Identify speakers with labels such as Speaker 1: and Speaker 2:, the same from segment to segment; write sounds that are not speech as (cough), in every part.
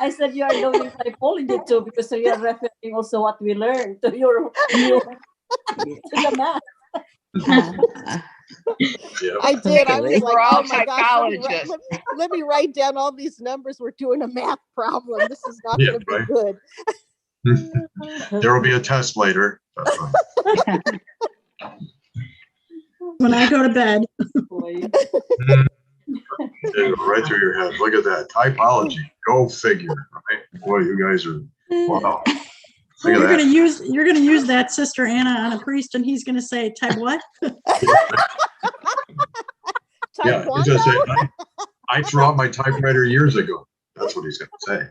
Speaker 1: I said you are doing typology too because you are referring also what we learned to your (laughs) new to the math.
Speaker 2: I did. I was (laughs)
Speaker 3: We're
Speaker 2: like,
Speaker 3: all
Speaker 2: oh my gosh, let me, write-
Speaker 3: psychologists.
Speaker 2: let, me, let me write down all these numbers. We're doing a math problem. This is not
Speaker 4: Yeah,
Speaker 2: going to be
Speaker 4: right.
Speaker 2: good.
Speaker 4: There will be a test later. That's fine.
Speaker 5: When I go to bed,
Speaker 1: Boy.
Speaker 4: It'll go Right through your head. Look at that. Typology. Go figure. Right? Boy, you guys are, wow. Look
Speaker 5: you're
Speaker 4: at
Speaker 5: gonna use, you're gonna use that Sister Anna on a priest and he's gonna say, type what?
Speaker 4: that. Yeah, he's gonna
Speaker 2: Taekwondo?
Speaker 4: say, I I threw out my typewriter years ago. That's what he's gonna say.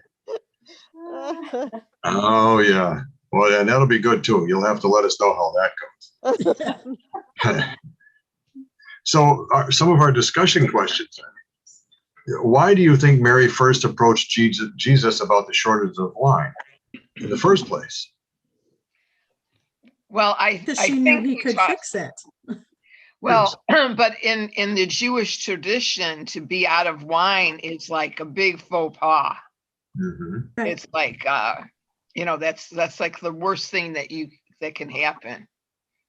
Speaker 4: Oh, yeah. Well, and that'll be good too. You'll have to let us know how that goes.
Speaker 5: (laughs)
Speaker 4: So uh, some of our discussion questions. Why do you think Mary first approached Jesus Jesus about the shortage of wine in the first place?
Speaker 3: Well, I,
Speaker 5: Because
Speaker 3: I
Speaker 5: she knew
Speaker 3: think
Speaker 5: he
Speaker 3: we
Speaker 5: could
Speaker 3: talked-
Speaker 5: fix it.
Speaker 3: Well, (clears throat) but in, in the Jewish tradition, to be out of wine is like a big faux pas.
Speaker 4: Mhm.
Speaker 5: Right.
Speaker 3: It's like, uh, you know, that's, that's like the worst thing that you, that can happen.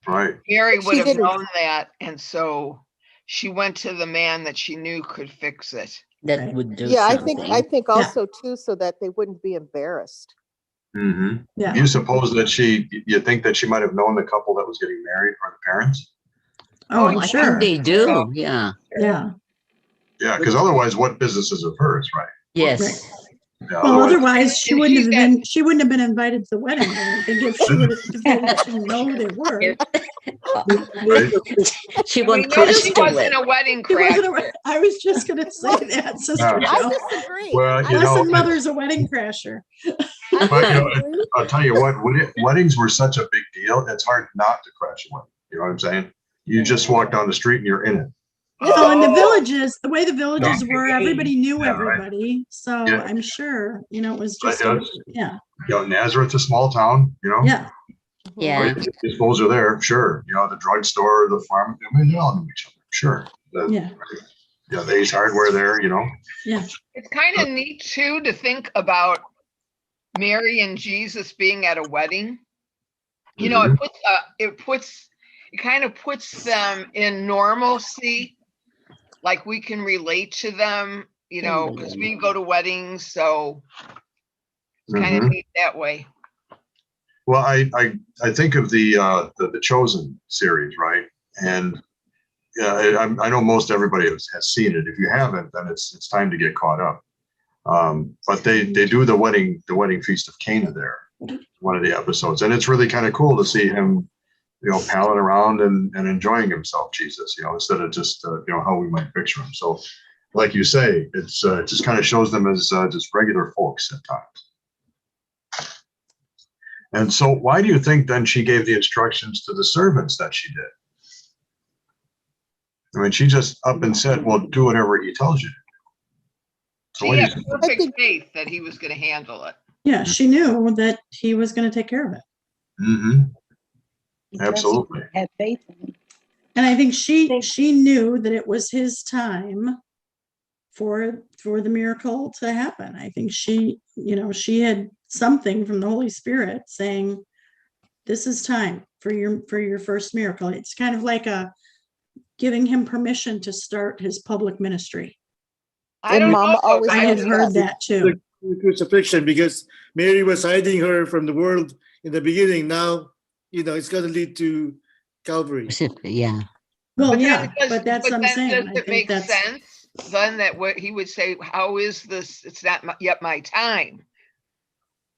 Speaker 4: Right.
Speaker 3: Mary
Speaker 2: But
Speaker 3: would
Speaker 2: she
Speaker 3: have
Speaker 2: didn't.
Speaker 3: known that, and so she went to the man that she knew could fix it.
Speaker 5: Right.
Speaker 6: That would do
Speaker 2: yeah, I think I
Speaker 6: something.
Speaker 2: think also too, so that they wouldn't be embarrassed.
Speaker 4: Mhm.
Speaker 5: Yeah.
Speaker 4: You suppose that she, you think that she might have known the couple that was getting married or the parents?
Speaker 3: Oh,
Speaker 5: Oh,
Speaker 3: I
Speaker 6: I
Speaker 5: sure.
Speaker 6: think they do,
Speaker 3: So-
Speaker 6: yeah,
Speaker 5: Yeah.
Speaker 4: Yeah, because otherwise what business is of hers, right?
Speaker 6: yes.
Speaker 4: Yeah,
Speaker 5: Well,
Speaker 4: otherwise-
Speaker 5: otherwise she
Speaker 3: And
Speaker 5: wouldn't
Speaker 3: she's
Speaker 5: have
Speaker 3: got-
Speaker 5: been, she wouldn't have been invited to the wedding. I think if she would have, she know they were.
Speaker 4: Right.
Speaker 6: (laughs) She
Speaker 3: We
Speaker 6: won't
Speaker 3: know
Speaker 6: trust
Speaker 3: she wasn't
Speaker 6: it.
Speaker 3: a wedding
Speaker 5: She
Speaker 3: crasher.
Speaker 5: wasn't a- I was just gonna say that, Sister
Speaker 4: Yeah.
Speaker 2: I
Speaker 5: Joe.
Speaker 2: disagree.
Speaker 4: Well, you know,
Speaker 5: Blessed Mother's a wedding crasher.
Speaker 2: I
Speaker 4: But, you know,
Speaker 2: disagree.
Speaker 4: I'll tell you what, wed- weddings were such a big deal. It's hard not to crash a wedding. You know what I'm saying? You just walk down the street and you're in it.
Speaker 5: Well, in the villages, the way the villages were,
Speaker 3: okay.
Speaker 5: everybody knew
Speaker 4: Yeah, right.
Speaker 5: everybody, so
Speaker 4: Yeah.
Speaker 5: I'm sure, you know, it was
Speaker 4: But,
Speaker 5: just,
Speaker 4: you know, Oh.
Speaker 5: yeah,
Speaker 4: you know, Nazareth's a small town, you know? Oh,
Speaker 5: yeah,
Speaker 6: Yeah,
Speaker 4: These fools are there, sure. You know, the drugstore, the farm, I mean, they all knew each other, sure. The-
Speaker 5: yeah,
Speaker 4: Yeah, the Ace Hardware there, you know?
Speaker 3: It's kind of neat too to think about Mary and Jesus being at a wedding. You know, it puts, uh, it puts, it kind of puts them in normalcy. Like we can relate to them, you know, because we go to weddings, so it's kind
Speaker 4: Mhm.
Speaker 3: of neat that way.
Speaker 4: Well, I, I, I think of the, uh, the, the Chosen series, right? And, yeah, I, I'm- I know most everybody has, has seen it. If you haven't, then it's, it's time to get caught up. Um, but they, they do the wedding, the wedding feast of Cana there, one of the episodes. And it's really kind of cool to see him, you know, palling around and, and enjoying himself, Jesus, you know, instead of just, uh, you know, how we might picture him. So like you say, it's, uh, it just kind of shows them as, uh, just regular folks at times. And so why do you think then she gave the instructions to the servants that she did? I mean, she just up and said, well, do whatever he tells you. to do." So
Speaker 3: She
Speaker 4: what do you
Speaker 3: had
Speaker 4: think?
Speaker 3: perfect
Speaker 2: think-
Speaker 3: faith that he was going to handle it.
Speaker 5: yeah, she knew that he was gonna take care of it.
Speaker 4: hmm absolutely.
Speaker 7: Have faith in
Speaker 5: And I think she,
Speaker 1: Thank-
Speaker 5: she knew that it was his time for, for the miracle to happen. I think she, you know, she had something from the Holy Spirit saying, this is time for your, for your first miracle. It's kind of like a, giving him permission to start his public ministry.
Speaker 3: I
Speaker 2: And
Speaker 3: don't
Speaker 2: Mama
Speaker 3: know. though,
Speaker 2: always
Speaker 5: I
Speaker 3: guys.
Speaker 5: had
Speaker 2: Yes.
Speaker 5: heard that too.
Speaker 8: the crucifixion because Mary was hiding her from the world in the beginning. Now, you know, it's going to lead to Calvary.
Speaker 6: yeah.
Speaker 5: Well,
Speaker 3: But then
Speaker 5: yeah,
Speaker 3: does-
Speaker 5: but that's what I'm
Speaker 3: then does
Speaker 5: saying. I
Speaker 3: it make
Speaker 5: think that's,
Speaker 3: sense Then that what he would say, how is this, it's not my- yet my time.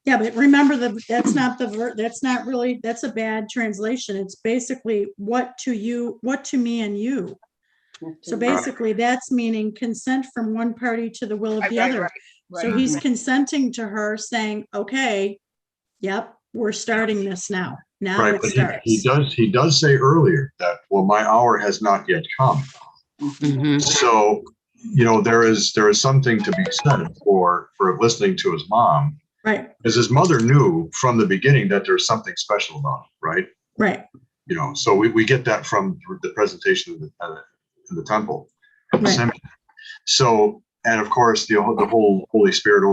Speaker 5: yeah, but remember that, that's not the, ver- that's not really, that's a bad translation. It's basically what to you, what to me and you.
Speaker 1: (laughs)
Speaker 5: So basically, that's meaning consent from one party to the will of
Speaker 3: Right,
Speaker 5: the
Speaker 3: right,
Speaker 5: other.
Speaker 3: right,
Speaker 5: So
Speaker 3: right.
Speaker 5: he's consenting to her saying, okay, yep, we're starting this now. Now
Speaker 4: Right,
Speaker 5: it
Speaker 4: but he, he
Speaker 5: starts.
Speaker 4: does, he does say earlier that, well, my hour has not yet come.
Speaker 6: mhm.
Speaker 4: So, you know, there is, there is something to be said for, for listening to his mom.
Speaker 5: Right,
Speaker 4: Because his mother knew from the beginning that there's something special about him, right?
Speaker 5: right.
Speaker 4: you know, so we, we get that from the presentation of the, uh, in the temple.
Speaker 5: Right.
Speaker 4: So, and of course, the, whole- the whole Holy Spirit